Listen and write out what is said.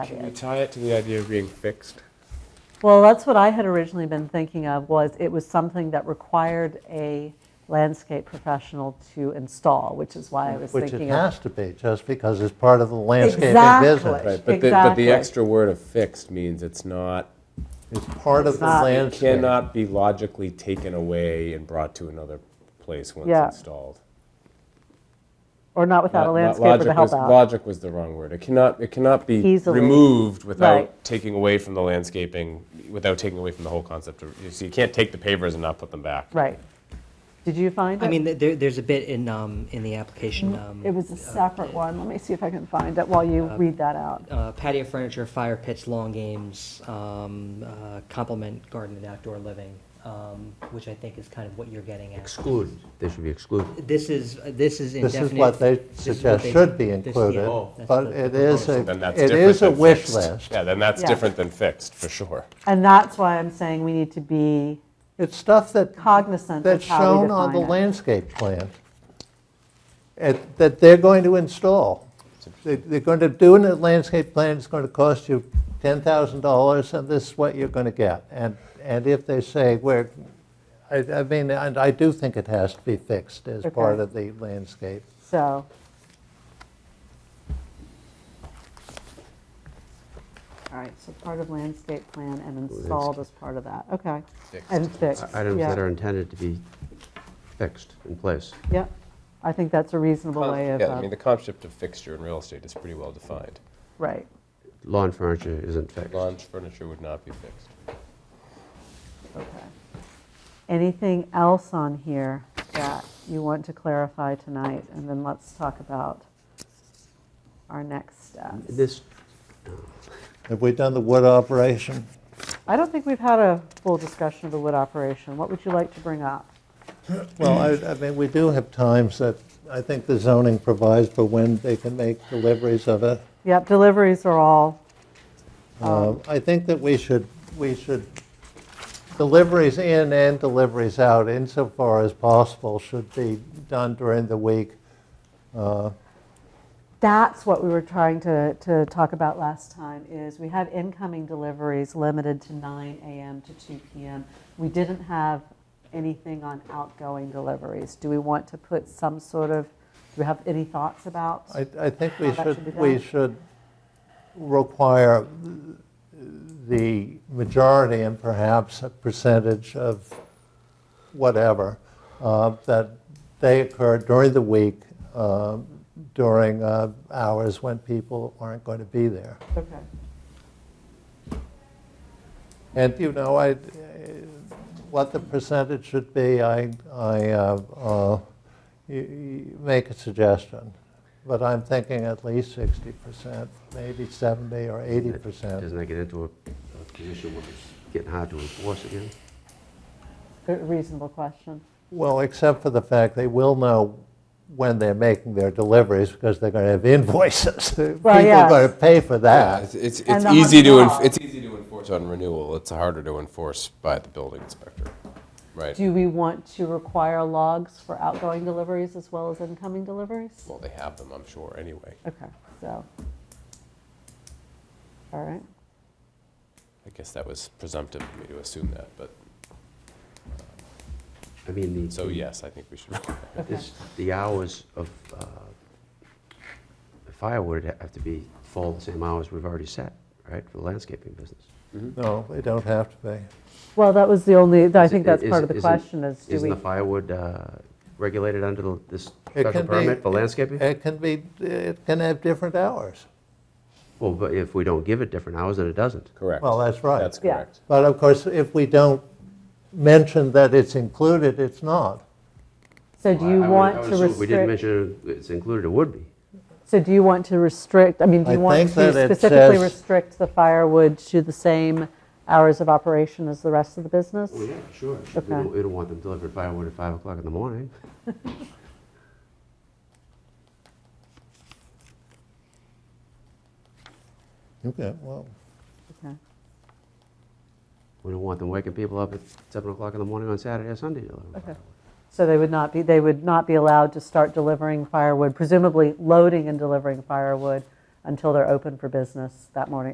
that Can we is. tie it to the idea of being fixed? Well, that's what I had originally been thinking of, was it was something that required a landscape professional to install, which is why I was Which it thinking of. has to be, just because it's part of the landscaping Exactly. business. But the, but Exactly. the extra word of fixed means it's not, It's part of the not- it landscape. cannot be logically taken away and brought to another place once Yeah. installed. Or not without a Lo- lo- landscaper to logic help was- out. Logic was the wrong word. It cannot, it cannot be Easily. removed Right. without taking away from the landscaping, without taking away from the whole concept of, you see, you can't take the pavers and not put them back. Right. Did you find it? I mean, th- there, there's a bit in, um, in the application, um, Mm-hmm. It was a separate one. Let me see if I can find it while you read that out. uh, patio furniture, fire pits, lawn games, um, uh, complement garden and outdoor living, um, which I think is kind of what you're getting at. Excluded, they should be excluded. This is, this is This indefinite. is what they This is what suggest they- should be this- yeah, included, that's but the- it the is a, Then that's it different is a than wish fixed. list. Yeah, then that's Yeah. different than fixed, for sure. And that's why I'm saying we need to be It's stuff that, cognizant of that's how we shown on define the it. landscape plan, It- that they're going to install. They- They're going to do a landscape plan, it's going to cost you $10,000, and this is what you're going to get. And, and if they say, we're, I, I mean, and I do think it has to be fixed as part Okay. of the landscape. So, all right, so part of landscape plan and installed as part of that, okay. And fixed, Items yeah, that are intended to be fixed in place. Yep, I think that's a reasonable way of, Yeah, I uh, mean, the concept of fixture in real estate is pretty well defined. right. Lawn furniture isn't fixed. Lawn furniture would not be fixed. Okay. Anything else on here that you want to clarify tonight? And then let's talk about our next steps. This, Have we done the wood operation? I don't think we've had a full discussion of the wood operation. What would you like to bring up? Well, I, I mean, we do have times that I think the zoning provides for when they can make deliveries of it. Yep, deliveries are all, Um, I think that we should, we should, deliveries in and deliveries out insofar as possible should be done during the week. that's what we were trying to, to talk about last time, is we have incoming deliveries limited to 9 AM to 2 PM. We didn't have anything on outgoing deliveries. Do we want to put some sort of, do we have any thoughts about? I, I think we How that should be should, done? we should require the majority and perhaps a percentage of whatever, uh, that they occur during the week, um, during uh, hours when people aren't going to be there. Okay, And, you know, I, uh, what the percentage should be, I, I, uh, uh, you- you make a suggestion. But I'm thinking at least 60%, maybe 70 or 80%. doesn't that get into a a position where it's getting hard to enforce again? A reasonable question. Well, except for the fact they will know when they're making their deliveries because they're going to have invoices. People yes. are going to pay for Yeah, that. it's, it's, And it's the easy to, enf- hotel. it's easy to enforce on renewal, it's harder to enforce by the building inspector, right? Do we want to require logs for outgoing deliveries as well as incoming deliveries? Well, they have them, I'm sure, anyway. Okay, so, all right. I guess that was presumptive of me to assume that, but, I mean, the. so yes, I think we should. require it. This, the hours of uh, the firewood would have to be fall the same hours we've already set, right, for the landscaping business. No, they don't have to pay. Well, that was the only, I Is- think that's is- part of the isn't- question is, do Isn't we, the firewood uh, regulated under the- this It can special be- permit for landscaping? It can be, it can have different hours. Well, but if we don't give it different hours, then it doesn't. Correct. Well, that's right. That's Yeah. correct. But of course, if we don't mention that it's included, it's not. so do I- I you would- I want would to assume If we didn't restrict? mention it's included, it would be. So do you want to restrict, I mean, do I you want think to that it specifically says- restrict the firewood to the same hours of operation as the rest of the business? Well, Oh, yeah, sure. We Okay. don't, we don't want them delivered firewood at 5 o'clock in the morning. Okay, well. Okay. We don't want them waking people up at 7 o'clock in the morning on Saturday or Sunday. to deliver firewood. So they would not be, they would not be allowed to start delivering firewood, presumably loading and delivering firewood until they're open for business that morning?